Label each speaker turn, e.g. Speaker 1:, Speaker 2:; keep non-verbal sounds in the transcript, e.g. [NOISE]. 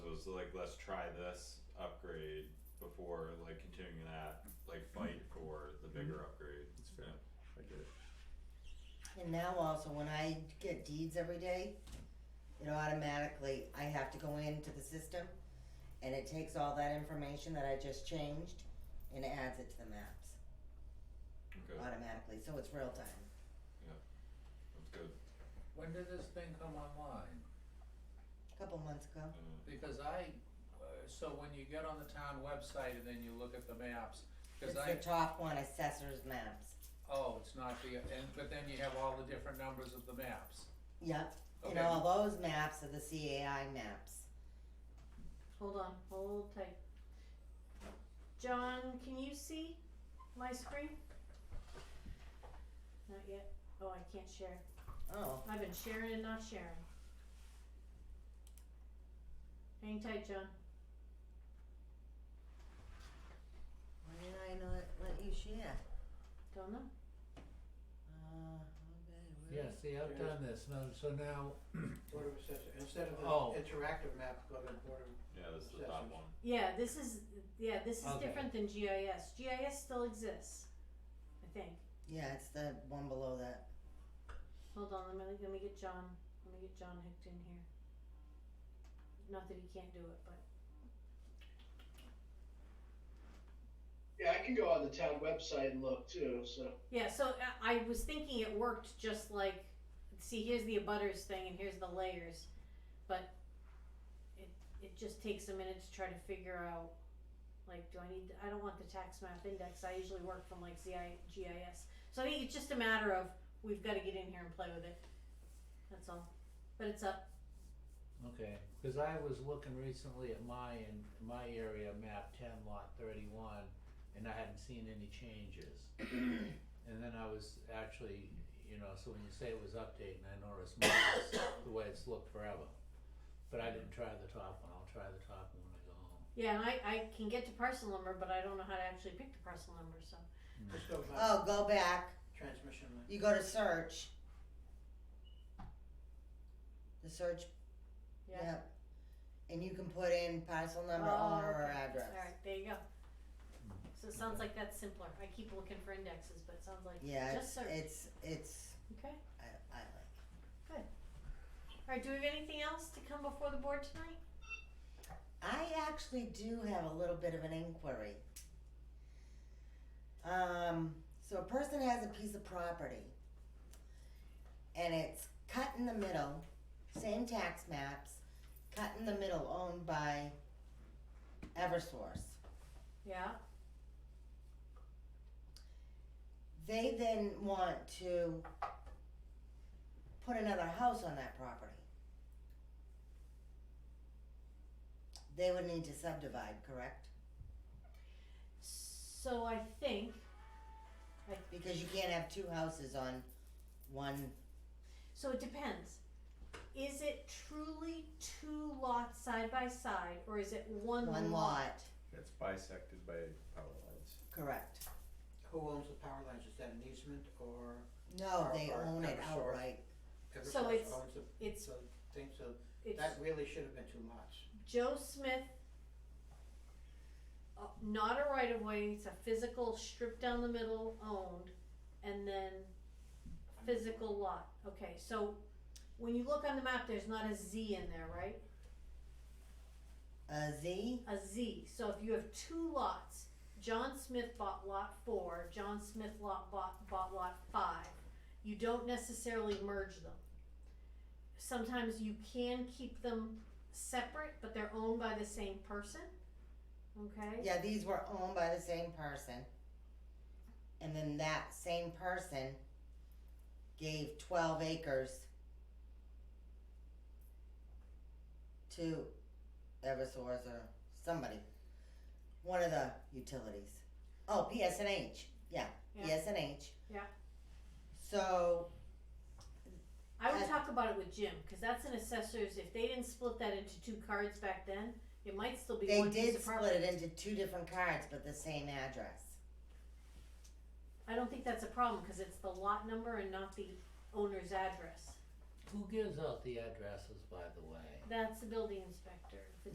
Speaker 1: was like, let's try this upgrade before like continuing that, like fight for
Speaker 2: Mm-hmm.
Speaker 1: the bigger upgrade.
Speaker 2: It's fair. I get it.
Speaker 3: And now also, when I get deeds every day, it automatically, I have to go into the system and it takes all that information that I just changed and adds it to the maps
Speaker 1: Okay,
Speaker 3: automatically, so it's real time.
Speaker 1: that's good.
Speaker 4: When did this thing come online?
Speaker 3: A couple months ago,
Speaker 1: Uh,
Speaker 4: Because I, uh, so when you get on the town website and then you look at the maps,
Speaker 3: it's
Speaker 4: cause I,
Speaker 3: the top one, assessor's maps.
Speaker 4: oh, it's not the, and, but then you have all the different numbers of the maps.
Speaker 3: Yep, and
Speaker 4: Okay.
Speaker 3: all those maps are the CAI maps.
Speaker 5: Hold on, hold tight. John, can you see my screen? Not yet. Oh, I can't share.
Speaker 3: Oh,
Speaker 5: I've been sharing and not sharing. Hang tight, John.
Speaker 3: why did I not let you share?
Speaker 5: Don't know.
Speaker 3: Uh, okay,
Speaker 6: Yeah,
Speaker 3: where-
Speaker 6: see, I've done this, no, so now,
Speaker 7: Board of Assessors, instead of
Speaker 6: Oh.
Speaker 7: the interactive map, go to Board of,
Speaker 1: yeah, this is the top
Speaker 7: Sessions.
Speaker 1: one.
Speaker 5: Yeah, this is yeah, this is
Speaker 6: Okay.
Speaker 5: different than GIS. GIS still exists, I think.
Speaker 3: Yeah, it's the one below that.
Speaker 5: Hold on, let me let me get John. Let me get John hooked in here. Not that he can't do it, but
Speaker 8: Yeah, I can go on the town website and look too, so.
Speaker 5: Yeah, so uh, I I was thinking it worked just like, see, here's the abutters thing and here's the layers, but it it just takes a minute to try to figure out, like, do I need? I don't want the tax map index. I usually work from like ZI, GIS, so I think it's just a matter of we've got to get in here and play with it. That's all, but it's up.
Speaker 6: okay, cause I was looking recently at my, in my area, map ten lot thirty-one, and I hadn't seen any changes. And then I was actually, you know, so when you say it was updating, I noticed mine is [COUGHS] the way it's looked forever. But I didn't try the top one, I'll try the top one when I go home.
Speaker 5: Yeah, and I I can get to parcel number, but I don't know how to actually pick the parcel number. So
Speaker 7: just go
Speaker 5: Uh,
Speaker 7: by
Speaker 3: Oh, go back.
Speaker 7: transmission line.
Speaker 3: You go to search. The search,
Speaker 5: yeah. Oh,
Speaker 3: yep. And you can put in parcel number, owner, or
Speaker 5: okay.
Speaker 3: address.
Speaker 5: Alright, there you go. So it sounds like that's simpler. I keep looking for indexes, but it sounds like
Speaker 3: Yeah,
Speaker 5: just
Speaker 3: it's,
Speaker 5: search.
Speaker 3: it's, it's,
Speaker 5: Okay.
Speaker 3: I, I like.
Speaker 5: Alright, do we have anything else to come before the board tonight?
Speaker 3: I actually do have a little bit of an inquiry. Um, so a person has a piece of property and it's cut in the middle, same tax maps, cut in the middle, owned by Eversource.
Speaker 5: Yeah.
Speaker 3: they then want to put another house on that property. They would need to subdivide, correct?
Speaker 5: So I think,
Speaker 3: Because you can't have two houses on one,
Speaker 5: so it depends. Is it truly two lots side by side or is it one lot?
Speaker 3: one lot,
Speaker 2: It's bisected by power lines.
Speaker 3: correct?
Speaker 7: Who owns the power lines? Is that an easement or
Speaker 3: No, they
Speaker 7: Or- or
Speaker 3: own it
Speaker 7: Eversource.
Speaker 3: outright.
Speaker 5: So
Speaker 7: Eversource
Speaker 5: it's-
Speaker 7: owns the,
Speaker 5: It's
Speaker 7: the thing, so
Speaker 5: it's
Speaker 7: that really should have been two lots.
Speaker 5: Joe Smith, uh, not a right of way, it's a physical strip down the middle owned, and then physical lot. Okay, so when you look on the map, there's not a Z in there, right?
Speaker 3: A Z,
Speaker 5: A Z. So if you have two lots, John Smith bought lot four, John Smith lot bought, bought lot five, you don't necessarily merge them. Sometimes you can keep them separate, but they're owned by the same person. Okay?
Speaker 3: yeah, these were owned by the same person. And then that same person gave twelve acres to Eversource or somebody, one of the utilities. Oh, PSNH, yeah,
Speaker 5: Yeah.
Speaker 3: PSNH.
Speaker 5: Yeah.
Speaker 3: So,
Speaker 5: I would
Speaker 3: Uh,
Speaker 5: talk about it with Jim because that's an assessor's. If they didn't split that into two cards back then, it might still be
Speaker 3: they
Speaker 5: one piece
Speaker 3: did
Speaker 5: of
Speaker 3: split
Speaker 5: property.
Speaker 3: it into two different cards, but the same address.
Speaker 5: I don't think that's a problem because it's the lot number and not the owner's address.
Speaker 6: Who gives out the addresses, by the way?
Speaker 5: That's the building inspector.